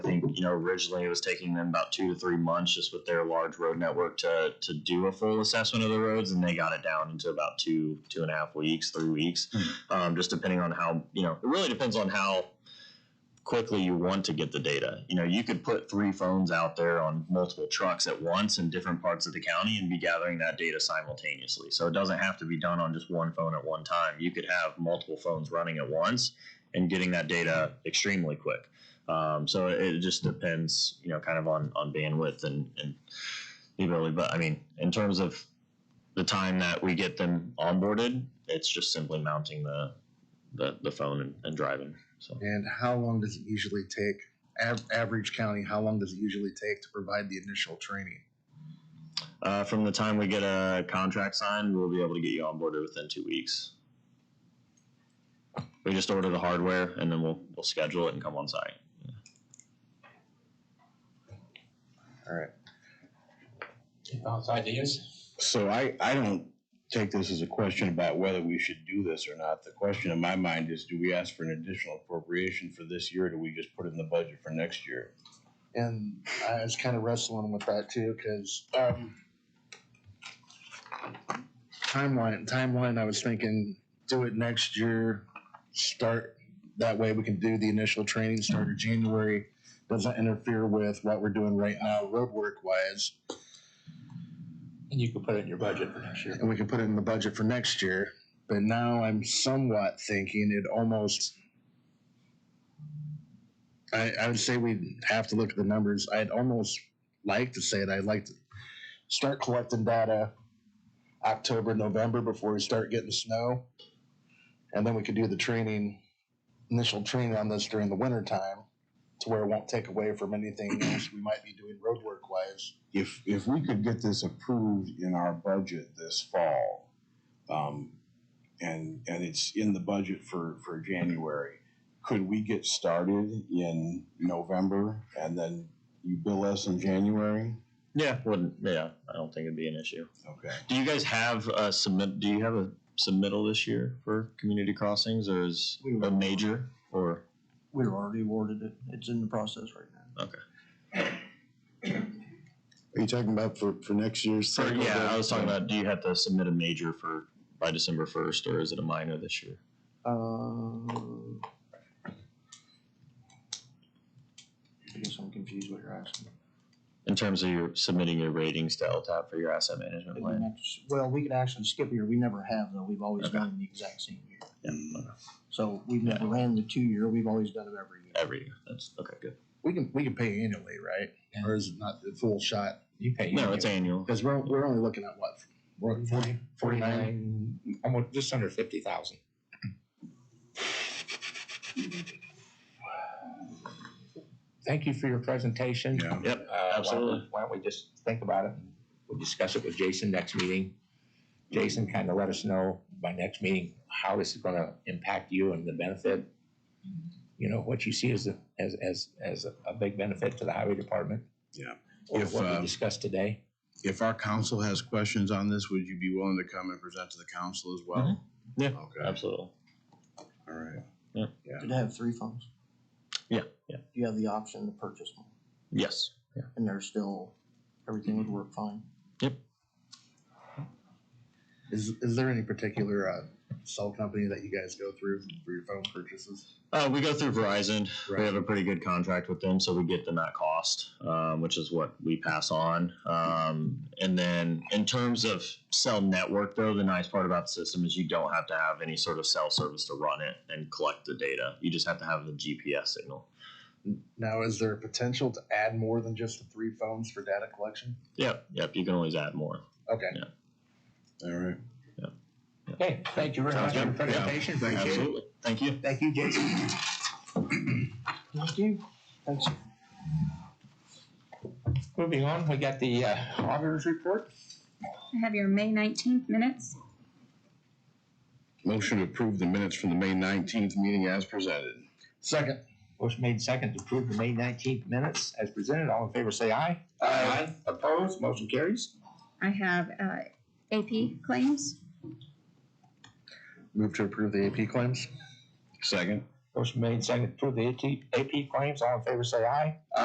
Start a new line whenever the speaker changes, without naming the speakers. and you know originally it was taking them about two to three months just with their large road network to to do a full assessment of the roads, and they got it down into about two two and a half weeks, three weeks, um, just depending on how you know. It really depends on how quickly you want to get the data. You know, you could put three phones out there on multiple trucks at once in different parts of the county and be gathering that data simultaneously. So it doesn't have to be done on just one phone at one time. You could have multiple phones running at once and getting that data extremely quick. Um, so it just depends, you know, kind of on, on bandwidth and, and the ability. But I mean, in terms of the time that we get them onboarded, it's just simply mounting the, the, the phone and, and driving. So.
And how long does it usually take, av- average county, how long does it usually take to provide the initial training?
Uh, from the time we get a contract signed, we'll be able to get you onboarded within two weeks. We just order the hardware and then we'll we'll schedule it and come on site.
All right.
Bounce ideas?
So I, I don't take this as a question about whether we should do this or not. The question in my mind is, do we ask for an additional appropriation for this year, or do we just put it in the budget for next year?
And I was kind of wrestling with that too, because um, timeline, timeline. I was thinking, do it next year. Start that way. We can do the initial training start in January. Doesn't interfere with what we're doing right now, road work wise,
And you can put it in your budget for next year.
and we can put it in the budget for next year. But now I'm somewhat thinking it almost. I, I would say we'd have to look at the numbers. I'd almost like to say it. I'd like to start collecting data October, November before we start getting snow. And then we could do the training, initial training on this during the winter time to where it won't take away from anything else we might be doing road work wise.
If, if we could get this approved in our budget this fall, um, and, and it's in the budget for, for January, could we get started in November and then you bill us in January?
Yeah, wouldn't yeah. I don't think it'd be an issue.
Okay.
Do you guys have a submit? Do you have a submittal this year for community crossings, or is
We
a
will.
major or
We were already awarded it. It's in the process right now.
Are you talking about for, for next year's?
for,
cycle,
yeah?
Doug?
I was talking about. Do you have to submit a major for by December first, or is it a minor this year?
Uh, I guess I'm confused what you're asking.
In terms of your submitting your ratings to LTAP for your asset management
Mm-hmm.
We
plan.
might just- Well, we could actually skip a year. We never have though. We've always
Okay.
done the exact same year.
Yeah,
So we've never ran the two year. We've always done it every year.
every year. That's okay. Good.
We can we can pay annually, right? Or is it not the full shot?
You pay.
No, it's annual.
Because we're, we're only looking at what? We're forty, forty-nine?
Forty-nine, almost, just under fifty thousand. Thank you for your presentation.
Yeah.
Yep.
Uh, why don't we-
Absolutely.
Why don't we just think about it? and We'll discuss it with Jason next meeting. Jason, kind of let us know by next meeting how this is gonna impact you and the benefit. You know, what you see as, a- as, as, as a- a big benefit to the highway department.
Yeah.
Or
If,
what
uh,
we discussed today.
If our council has questions on this, would you be willing to come and present to the council as well?
Mhm. Yeah.
Okay,
Absolutely.
all right.
Did it have three phones?
Yeah, yeah.
You have the option to purchase one
Yes. Yeah.
and they're still, everything would work fine.
Is, is there any particular, uh, cell company that you guys go through for your phone purchases?
Uh, we go through Verizon.
Right.
We have a pretty good contract with them, so we get them at cost, um, which is what we pass on. Um, and then in terms of cell network, though, the nice part about the system is you don't have to have any sort of cell service to run it and collect the data. You just have to have the GPS signal.
Now, is there potential to add more than just the three phones for data collection?
Yep, yep. You can always add more.
Okay.
All right.
Okay, thank you very
Sounds
much for your
good. Yeah.
presentation. Appreciate it.
Absolutely. Thank you.
Thank you, Jason.
Thank you. Thanks.
Moving on, we got the uh, auditor's report.
I have your May nineteenth minutes.
Motion to approve the minutes from the May nineteenth meeting as presented.
Second,
Motion made second to approve the May nineteenth minutes as presented. All in favor, say aye. Aye. Opposed, motion carries.
I have uh, AP claims.
move to approve the AP claims?
Second.
Motion made second to approve the AP claims. All in favor, say aye.